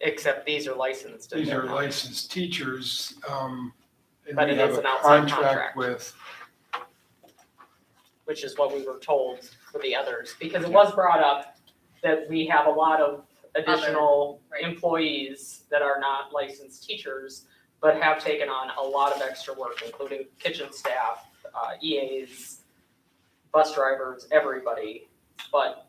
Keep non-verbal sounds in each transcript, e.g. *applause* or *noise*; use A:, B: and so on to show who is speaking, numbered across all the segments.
A: Except these are licensed. and
B: These
A: they're
B: are
A: not.
B: licensed teachers, um, and
A: But
B: we
A: it
B: have
A: is
B: a
A: an outside contract.
B: contract with,
A: Which is what we were told for the others, because it was brought up that we have a lot of additional
C: right.
A: employees that are not licensed teachers, but have taken on a lot of extra work, including kitchen staff, uh, EAs, bus drivers, everybody. But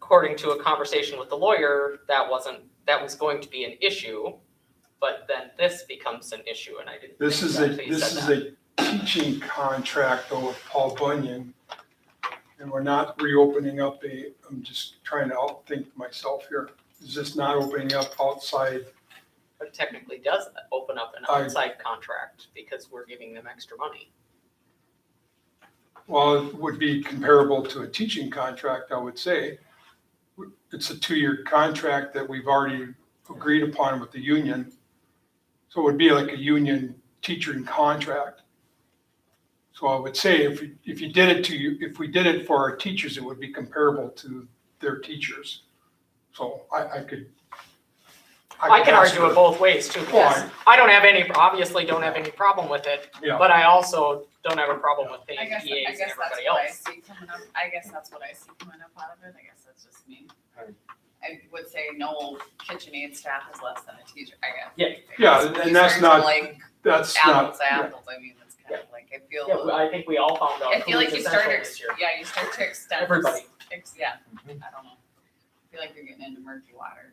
A: according to a conversation with the lawyer, that wasn't, that was going to be an issue. But then this becomes an issue and I didn't.
B: this
A: think
B: is
A: that
B: a,
A: they
B: this
A: said
B: is
A: that.
B: a teaching contract though with Paul Bunyan. And we're not reopening up a, I'm just trying to outthink myself here. Is this not opening up outside?
A: But it technically does open up an
B: I-
A: outside contract because we're giving them extra money.
B: Well, it would be comparable to a teaching contract, I would say. It's a two-year contract that we've already agreed upon with the union. So it would be like a union teaching contract. So I would say if, you- if you did it to you, if we did it for our teachers, it would be comparable to their teachers. So I, I could.
A: I can
B: ask
A: argue it
B: her.
A: both ways too, because
B: Why?
A: I don't have any, obviously don't have any problem with it,
B: Yeah.
A: but I also don't have a problem with paying
C: I guess, I
A: EAs and
C: guess that's
A: everybody
C: what I
A: else.
C: see coming up, I guess that's what I see coming up out of it, I guess that's just me. I would say no kitchen aid staff is less than a teacher, I guess.
A: Yeah.
B: Yeah, and- and that's
C: These are
B: not-
C: Like
B: That's not,
C: apples, to
B: yeah.
C: apples, I mean, it's kind of like, I feel,
A: Yeah, well, I think we all found out
C: I
A: who
C: feel like
A: was
C: you start,
A: essential
C: to
A: this
C: ex-
A: year.
C: yeah, you start to extend.
A: Everybody.
C: ex- Yeah, I
B: Mm-hmm.
C: don't know. I feel like you're getting into murky water.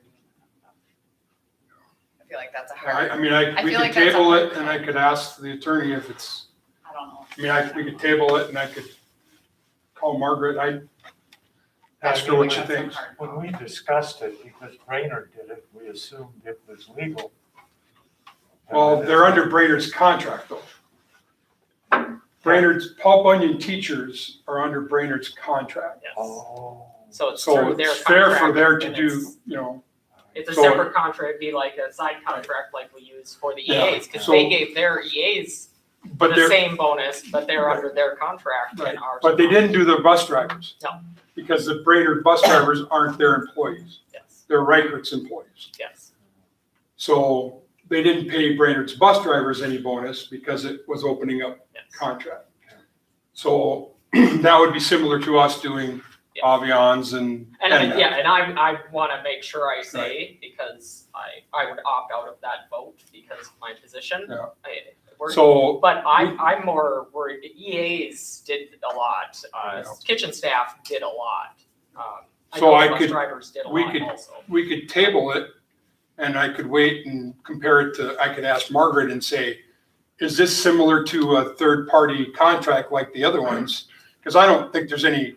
C: I feel like that's a
B: I,
C: hard,
B: I mean, I,
C: I
B: we
C: feel
B: could
C: like that's a
B: table it
C: hard
B: and I could ask the attorney if it's
C: I don't know.
B: I mean, I, we could table it and I could call Margaret, I ask her what she
C: That's a
B: thinks.
C: hard
D: When we discussed it, because Brainerd did it, we assumed it was legal.
B: Well, they're under Brainerd's contract though. Brainerd's, Paul Bunyan teachers are under Brainerd's contract.
A: Yes,
D: Oh.
A: so it's
B: So
A: through their
B: it's fair for
A: contract,
B: there to
A: and
B: do,
A: it's-
B: you know,
A: It's a
B: so-
A: separate contract, it'd be like a side contract like we use for the
B: Yeah,
A: EAs, cause they
B: so-
A: gave their EAs
B: but
A: the
B: they're,
A: same bonus, but they're under their contract
B: Right,
A: and ours.
B: but they
A: aren't.
B: didn't do the bus drivers.
A: No.
B: Because the Brainerd bus drivers aren't their employees,
A: Yes,
B: they're Reichert's employees.
A: yes,
B: So they didn't pay Brainerd's bus drivers any bonus because it was opening up
A: yes.
B: contract. So *clears throat* that would be similar to us doing
A: Yeah.
B: Avians and.
A: And I,
B: and that.
A: yeah, and I, I want to make sure I say, because I, I would opt out of that vote because of my position.
B: Yeah.
A: I- we're-
B: So,
A: But I, I'm more worried, EAs did a lot, uh,
B: Yeah.
A: kitchen staff did a lot. Um, I
B: So
A: know
B: I
A: bus
B: could-
A: Drivers did a
B: we
A: lot
B: could-
A: also.
B: we could table it and I could wait and compare it to, I could ask Margaret and say, is this similar to a third-party contract like the other ones? Because I don't think there's any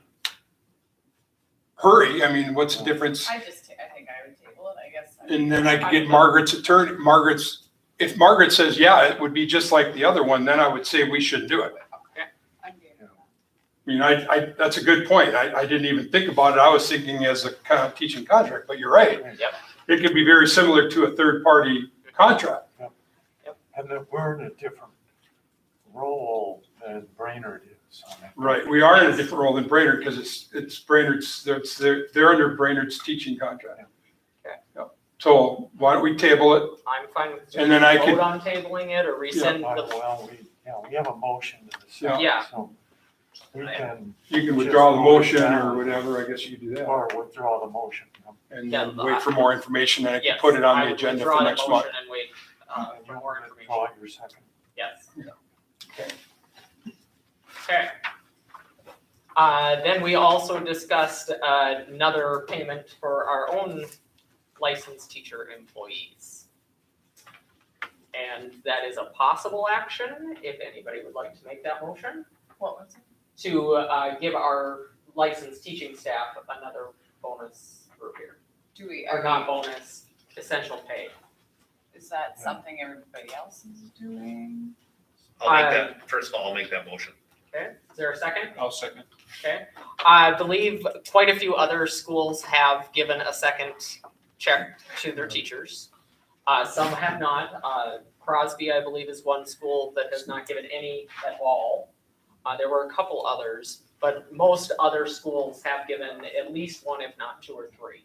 B: hurry. I mean, what's the difference?
C: I just, ta- I think I would table it, I guess. I-
B: And then I could get Margaret's attorney, Margaret's, if Margaret says, yeah, it would be just like the other one, then I would say we should do it.
C: I'm good with that.
B: I mean, I, I, that's a good point. I, I didn't even think about it. I was thinking as a kind of teaching contract, but you're right.
A: Yep.
B: It could be very similar to a third-party contract.
D: And that we're in a different role than Brainerd is on it.
B: Right. We are in a different role than Brainerd because it's, it's Brainerd's, they're- it's, they're, they're under Brainerd's teaching contract.
A: Okay.
B: Yep. So why don't we table it?
A: I'm fine with.
B: And then I could-
A: Vote on tabling it or rescind the,
D: Well, we, yeah, we have a motion in the
B: Yeah.
D: second,
A: Yeah.
D: so we
A: I-
D: can,
B: You can withdraw the motion or whatever. I guess you could do that.
D: or withdraw the motion.
B: And then wait for more information and I can
A: yes,
B: put it on
A: I
B: the
A: would
B: agenda
A: withdraw
B: for
A: the
B: next month.
A: motion and wait, uh,
D: And
A: for
D: you
A: more information,
D: Withdraw your second.
A: yes.
B: Yeah.
A: Okay. Uh, then we also discussed uh, another payment for our own licensed teacher employees. And that is a possible action, if anybody would like to make that motion,
C: What was it?
A: to uh, give our licensed teaching staff another bonus group here,
C: Do we,
A: or
C: are
A: non-bonus essential pay.
C: we, is that something everybody else is doing?
E: I'll make that, first of all, I'll make that motion.
A: Okay, is there a second?
B: I'll second.
A: Okay, I believe quite a few other schools have given a second check to their teachers. Uh, some have not, uh, Crosby, I believe, is one school that has not given any at all. Uh, there were a couple others, but most other schools have given at least one, if not two or three.